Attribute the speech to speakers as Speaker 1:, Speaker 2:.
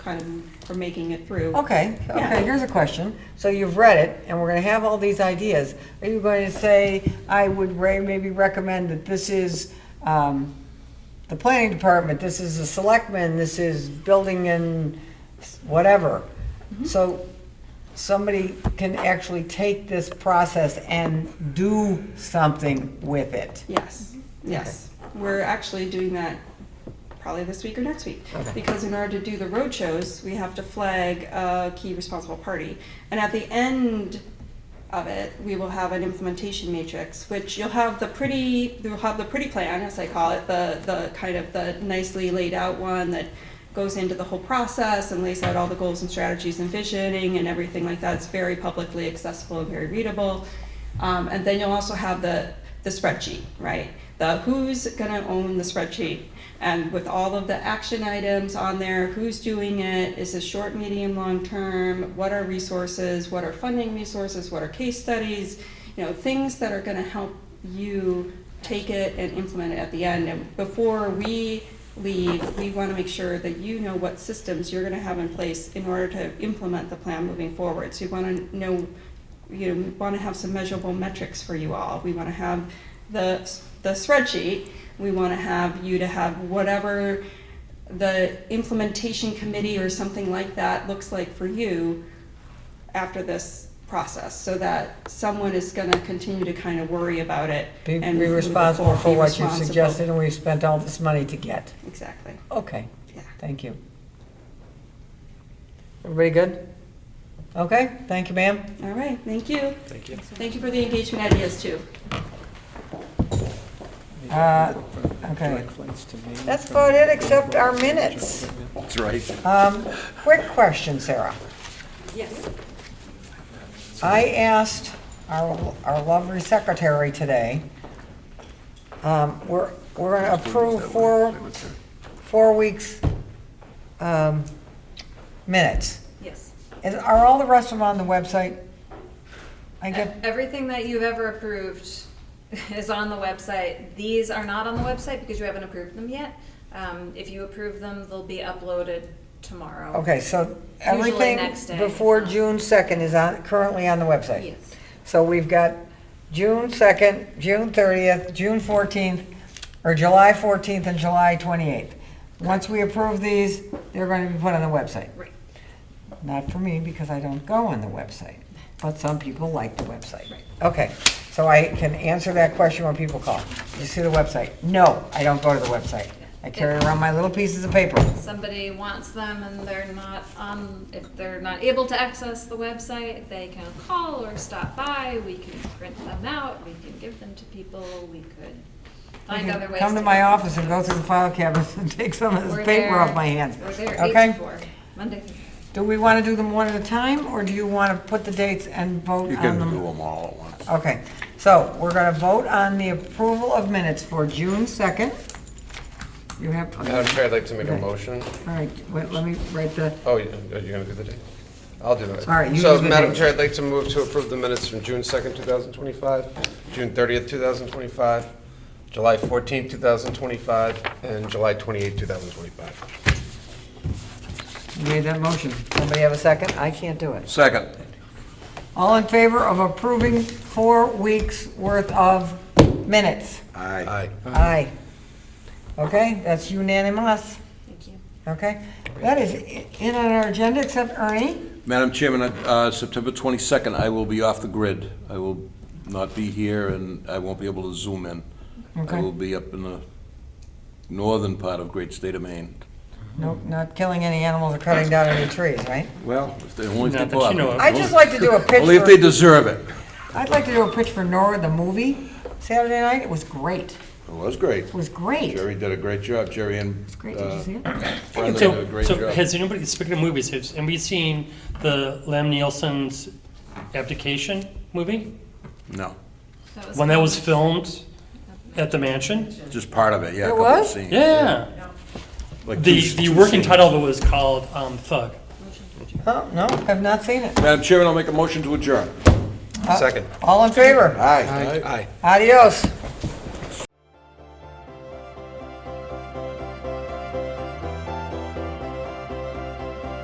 Speaker 1: kind of for making it through.
Speaker 2: Okay,
Speaker 1: Yeah.
Speaker 2: okay, here's a question. So you've read it, and we're gonna have all these ideas. Are you going to say, I would re- maybe recommend that this is, um, the planning department, this is the selectmen, this is building and whatever?
Speaker 1: Mm-hmm.
Speaker 2: So somebody can actually take this process and do something with it.
Speaker 1: Yes,
Speaker 2: Mm-hmm.
Speaker 1: yes. We're actually doing that probably this week or next week.
Speaker 2: Okay.
Speaker 1: Because in order to do the road shows, we have to flag a key responsible party. And at the end of it, we will have an implementation matrix, which you'll have the pretty, you'll have the pretty plan, as I call it, the, the kind of the nicely laid out one that goes into the whole process and lays out all the goals and strategies and visioning and everything like that. It's very publicly accessible and very readable. Um, and then you'll also have the, the spreadsheet, right? The who's gonna own the spreadsheet and with all of the action items on there, who's doing it? Is this short, medium, long term? What are resources? What are funding resources? What are case studies? You know, things that are gonna help you take it and implement it at the end. And before we leave, we want to make sure that you know what systems you're going to have in place in order to implement the plan moving forward. So you want to know, you know, we want to have some measurable metrics for you all. We want to have the, the spreadsheet. We want to have you to have whatever the implementation committee or something like that looks like for you after this process, so that someone is going to continue to kind of worry about it.
Speaker 2: Be
Speaker 1: and
Speaker 2: be
Speaker 1: move it
Speaker 2: responsible
Speaker 1: forward,
Speaker 2: for
Speaker 1: be
Speaker 2: what you
Speaker 1: responsible.
Speaker 2: suggested, and we've spent all this money to get.
Speaker 1: Exactly,
Speaker 2: Okay.
Speaker 1: yeah.
Speaker 2: Thank you. Everybody good? Okay, thank you, ma'am.
Speaker 1: All right, thank you.
Speaker 3: Thank you.
Speaker 1: Thank you for the engagement ideas too.
Speaker 2: Uh, Okay. That's about it, except our minutes.
Speaker 3: That's right.
Speaker 2: Um, Quick question, Sarah.
Speaker 1: Yes.
Speaker 2: I asked our, our lovely secretary today, um, we're, we're going to approve four, four weeks um, minutes.
Speaker 4: Yes.
Speaker 2: Is- Are all the rest of them on the website? I get,
Speaker 4: E-, Everything that you've ever approved is on the website. These are not on the website because you haven't approved them yet. Um, if you approve them, they'll be uploaded tomorrow.
Speaker 2: okay, so
Speaker 4: Usually
Speaker 2: everything
Speaker 4: next day.
Speaker 2: before June 2nd is on, currently on the website?
Speaker 4: Yes.
Speaker 2: So we've got June 2nd, June 30th, June 14th, or July 14th and July 28th. Once we approve these, they're going to be put on the website.
Speaker 4: Right.
Speaker 2: Not for me, because I don't go on the website, but some people like the website. Okay, so I can answer that question when people call. You see the website? No, I don't go to the website. I carry around my little pieces of paper.
Speaker 4: Somebody wants them and they're not on, if they're not able to access the website, they can call or stop by. We can print them out. We can give them to people. We could find other ways.
Speaker 2: Come to my office and go through the file cabinets and take some of
Speaker 4: We're
Speaker 2: this paper off
Speaker 4: there-
Speaker 2: my hands.
Speaker 4: We're there
Speaker 2: Okay.
Speaker 4: eight to four, Monday through Friday.
Speaker 2: Do we want to do them one at a time, or do you want to put the dates and vote
Speaker 3: You
Speaker 2: on
Speaker 3: can do
Speaker 2: them?
Speaker 3: them all at once.
Speaker 2: Okay, so we're going to vote on the approval of minutes for June 2nd. You have, all
Speaker 5: Madam Chair, I'd like to make a
Speaker 2: Okay.
Speaker 5: motion.
Speaker 2: right, wait, let me write the,
Speaker 5: Oh, you- are you going to do the date? I'll do it.
Speaker 2: All right, you
Speaker 5: So,
Speaker 2: do the
Speaker 5: Madam
Speaker 2: date.
Speaker 5: Chair, I'd like to move to approve the minutes from June 2nd, 2025, June 30th, 2025, July 14th, 2025, and July 28th, 2025.
Speaker 2: you made that motion. Somebody have a second? I can't do it.
Speaker 3: Second.
Speaker 2: All in favor of approving four weeks' worth of minutes?
Speaker 3: Aye.
Speaker 5: Aye.
Speaker 2: Aye. Okay, that's unanimous,
Speaker 4: Thank you.
Speaker 2: okay? That is i- in on our agenda, except Ernie.
Speaker 3: Madam Chairman, uh, September 22nd, I will be off the grid. I will not be here, and I won't be able to zoom in. I
Speaker 2: Okay.
Speaker 3: will be up in the northern part of great state of Maine.
Speaker 2: Nope, not killing any animals or cutting down any trees, right?
Speaker 3: Well, if they only if they
Speaker 6: Not that you know
Speaker 3: bother.
Speaker 6: of.
Speaker 2: I'd just like to do a pitch
Speaker 3: Only if they
Speaker 2: for,
Speaker 3: deserve it.
Speaker 2: I'd like to do a pitch for Nora, the movie, Saturday night. It was great.
Speaker 3: It was great.
Speaker 2: It was great. It
Speaker 3: Jerry did a great job. Jerry and
Speaker 2: was great. Did you see it?
Speaker 3: Brenda did a
Speaker 6: So,
Speaker 3: great
Speaker 6: so
Speaker 3: job.
Speaker 6: has anybody, speaking of movies, has anybody seen the Lam Nielsen's abdication movie?
Speaker 3: No,
Speaker 6: When that was filmed at the mansion?
Speaker 3: just part of it, yeah. a
Speaker 2: It
Speaker 3: couple of
Speaker 2: was?
Speaker 3: scenes.
Speaker 6: Yeah.
Speaker 3: Like
Speaker 6: The,
Speaker 3: two-
Speaker 6: the
Speaker 3: two
Speaker 6: working
Speaker 3: scenes.
Speaker 6: title of it was called um, Thug.
Speaker 2: Oh, no, I've not seen it.
Speaker 3: Madam Chairman, I'll make a motion to adjourn.
Speaker 5: Second.
Speaker 2: All in favor?
Speaker 3: Aye. Aye.
Speaker 2: Adios.